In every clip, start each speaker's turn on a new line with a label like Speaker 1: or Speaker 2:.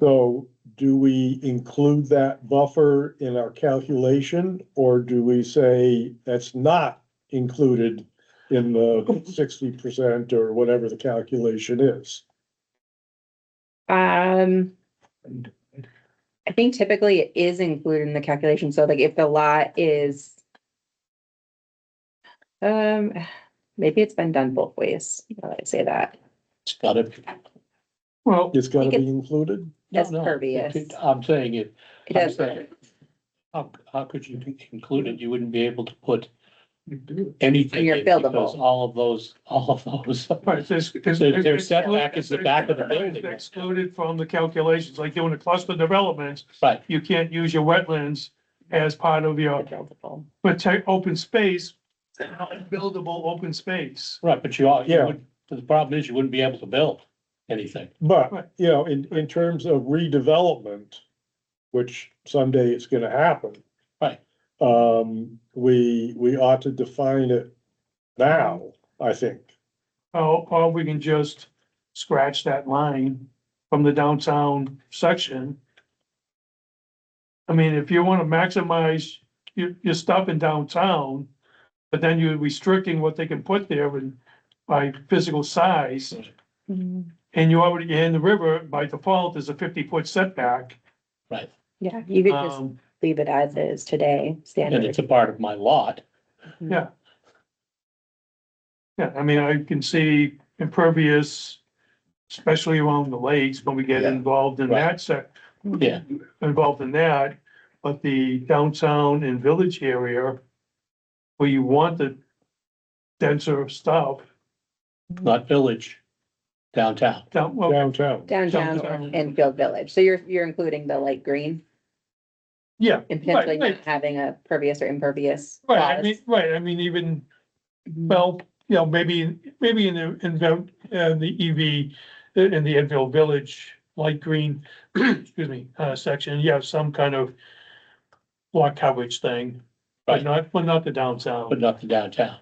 Speaker 1: So do we include that buffer in our calculation, or do we say that's not included in the sixty percent or whatever the calculation is?
Speaker 2: Um. I think typically it is included in the calculation, so like if the lot is. Um, maybe it's been done both ways, now that I say that,
Speaker 3: It's gotta. Well.
Speaker 1: It's gotta
Speaker 2: Like
Speaker 1: be included?
Speaker 3: no,
Speaker 2: It's
Speaker 3: no, it
Speaker 2: pervious.
Speaker 3: could- I'm saying it,
Speaker 2: it
Speaker 3: I'm
Speaker 2: does,
Speaker 3: sorry. how, how could you include it? You wouldn't be able to put anything.
Speaker 2: You're
Speaker 3: in because
Speaker 2: buildable.
Speaker 3: All of those, all of those.
Speaker 4: Right, there's, there's.
Speaker 3: Their- their setback is the back of the building.
Speaker 4: Excluded from the calculations, like doing a cluster developments,
Speaker 3: Right,
Speaker 4: you can't use your wetlands as part of your
Speaker 2: buildable.
Speaker 4: protect, open space, buildable open space.
Speaker 3: right, but you are, you
Speaker 1: Yeah.
Speaker 3: would, the problem is you wouldn't be able to build anything.
Speaker 1: But, you know, in, in terms of redevelopment, which someday it's gonna happen.
Speaker 3: Right.
Speaker 1: Um, we, we ought to define it now, I think.
Speaker 4: Or, or we can just scratch that line from the downtown section. I mean, if you wanna maximize your, your stuff in downtown, but then you're restricting what they can put there and by physical size.
Speaker 2: Mm,
Speaker 4: And you already, in the river, by default, is a fifty foot setback.
Speaker 2: Yeah, you could just
Speaker 4: Um,
Speaker 2: leave it as is today,
Speaker 3: And
Speaker 2: standard.
Speaker 3: it's a part of my lot.
Speaker 4: yeah. Yeah, I mean, I can see impervious, especially around the lakes, when we get
Speaker 3: Yeah.
Speaker 4: involved in
Speaker 3: Right.
Speaker 4: that sec,
Speaker 3: Yeah,
Speaker 4: involved in that. But the downtown and village area, where you want the denser stuff,
Speaker 2: Mm-hmm.
Speaker 3: not village, downtown.
Speaker 4: down, well,
Speaker 1: Downtown,
Speaker 2: Downtown
Speaker 4: Downtown.
Speaker 2: and Field Village, so you're, you're including the light green
Speaker 4: yeah.
Speaker 2: and potentially
Speaker 4: right.
Speaker 2: not having a pervious or impervious.
Speaker 4: Right, I
Speaker 2: clause.
Speaker 4: mean, right, I mean, even, well, you know, maybe, maybe in the, in the, uh, the EV, in the Enfield Village, light green, excuse me, uh, section, you have some kind of block coverage thing, but
Speaker 3: Right.
Speaker 4: not, but not the downtown.
Speaker 3: But not the downtown.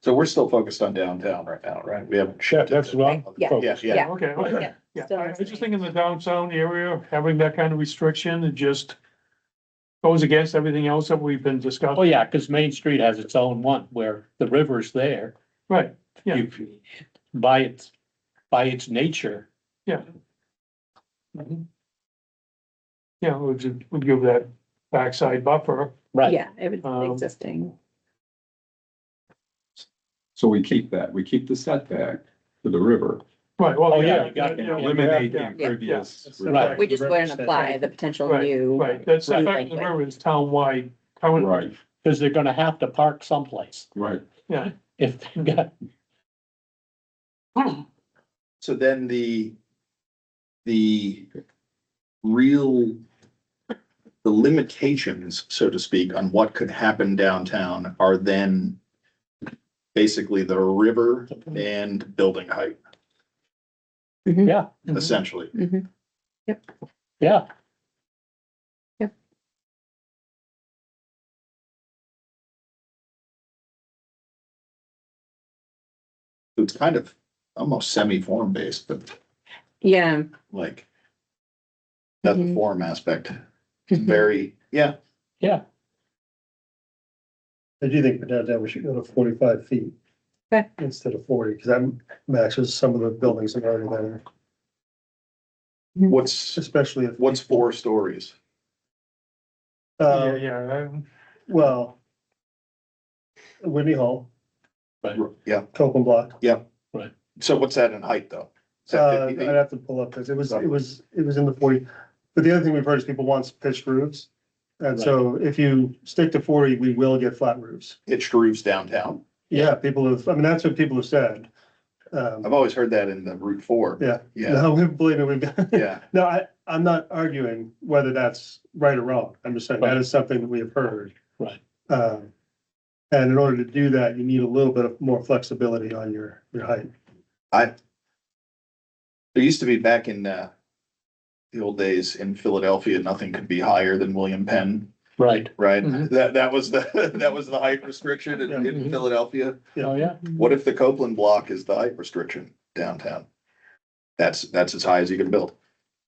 Speaker 5: So we're still focused on downtown right now, right? We haven't
Speaker 1: Yeah,
Speaker 5: shifted.
Speaker 1: that's what I'm
Speaker 2: Yeah.
Speaker 5: Yeah,
Speaker 1: focused.
Speaker 5: yeah.
Speaker 4: Yeah, Okay, okay,
Speaker 2: Yeah,
Speaker 4: yeah,
Speaker 2: still
Speaker 4: I I
Speaker 2: the same.
Speaker 4: just think in the downtown area, having that kind of restriction, it just goes against everything else that we've been
Speaker 3: Oh,
Speaker 4: discussing,
Speaker 3: yeah, because Main Street has its own one where the river's there.
Speaker 4: right? Yeah.
Speaker 3: You, by its, by its nature,
Speaker 4: Yeah, we'll ju- we'll give that backside buffer.
Speaker 3: right?
Speaker 2: Yeah, it would be
Speaker 4: Um,
Speaker 2: existing.
Speaker 6: So we keep that, we keep the setback to the river.
Speaker 4: Right, well,
Speaker 3: Oh,
Speaker 4: yeah.
Speaker 3: yeah, you got
Speaker 4: yeah,
Speaker 3: that.
Speaker 4: yeah,
Speaker 6: Eliminate the
Speaker 4: yeah,
Speaker 6: impervious.
Speaker 3: Right.
Speaker 2: We just wouldn't apply the potential new.
Speaker 4: Right, that's, the fact of the river is townwide, current,
Speaker 6: Right,
Speaker 3: Because they're gonna have to park someplace
Speaker 6: right.
Speaker 4: yeah,
Speaker 3: if they've got,
Speaker 5: So then the, the real, the limitations, so to speak, on what could happen downtown are then basically the river and building height,
Speaker 4: Mm-hmm.
Speaker 3: yeah,
Speaker 5: essentially.
Speaker 2: Mhm.
Speaker 3: yeah.
Speaker 5: It's kind of almost semi-form based, but
Speaker 2: Yeah.
Speaker 5: like that's the
Speaker 2: Mhm.
Speaker 5: form aspect,
Speaker 2: Mm-hmm.
Speaker 5: very, yeah,
Speaker 7: I do think for downtown, we should go to forty-five feet.
Speaker 2: Okay.
Speaker 7: Instead of forty, because that matches some of the buildings that are already there,
Speaker 5: what's,
Speaker 7: especially if,
Speaker 5: what's four stories?
Speaker 4: yeah,
Speaker 7: uh,
Speaker 4: yeah, um,
Speaker 7: well. Whitney Hall,
Speaker 5: Yeah,
Speaker 7: Copeland Block,
Speaker 5: so what's that in height though? Is that
Speaker 7: uh,
Speaker 5: 50
Speaker 7: I'd
Speaker 5: feet?
Speaker 7: have to pull up, because it was, it was, it was in the forty. But the other thing we've heard is people want pitched roofs. And so if you stick to forty, we will get flat roofs.
Speaker 5: Pitched roofs downtown.
Speaker 7: Yeah, people have, I mean, that's what people have said. Um,
Speaker 5: I've always heard that in the Route Four.
Speaker 7: yeah,
Speaker 5: Yeah,
Speaker 7: no, we- believe me, we've got,
Speaker 5: yeah.
Speaker 7: No, I, I'm not arguing whether that's right or wrong. I'm just saying that is something that we have heard.
Speaker 3: Right.
Speaker 7: Um, and in order to do that, you need a little bit of more flexibility on your, your height.
Speaker 5: There used to be back in uh, the old days in Philadelphia, nothing could be higher than William Penn,
Speaker 3: Right.
Speaker 5: right?
Speaker 3: Mhm.
Speaker 5: That, that was the, that was the height restriction in, in
Speaker 3: Mhm.
Speaker 5: Philadelphia.
Speaker 3: Oh, yeah.
Speaker 5: What if the Copeland block is the height restriction downtown? That's, that's as high as you can build.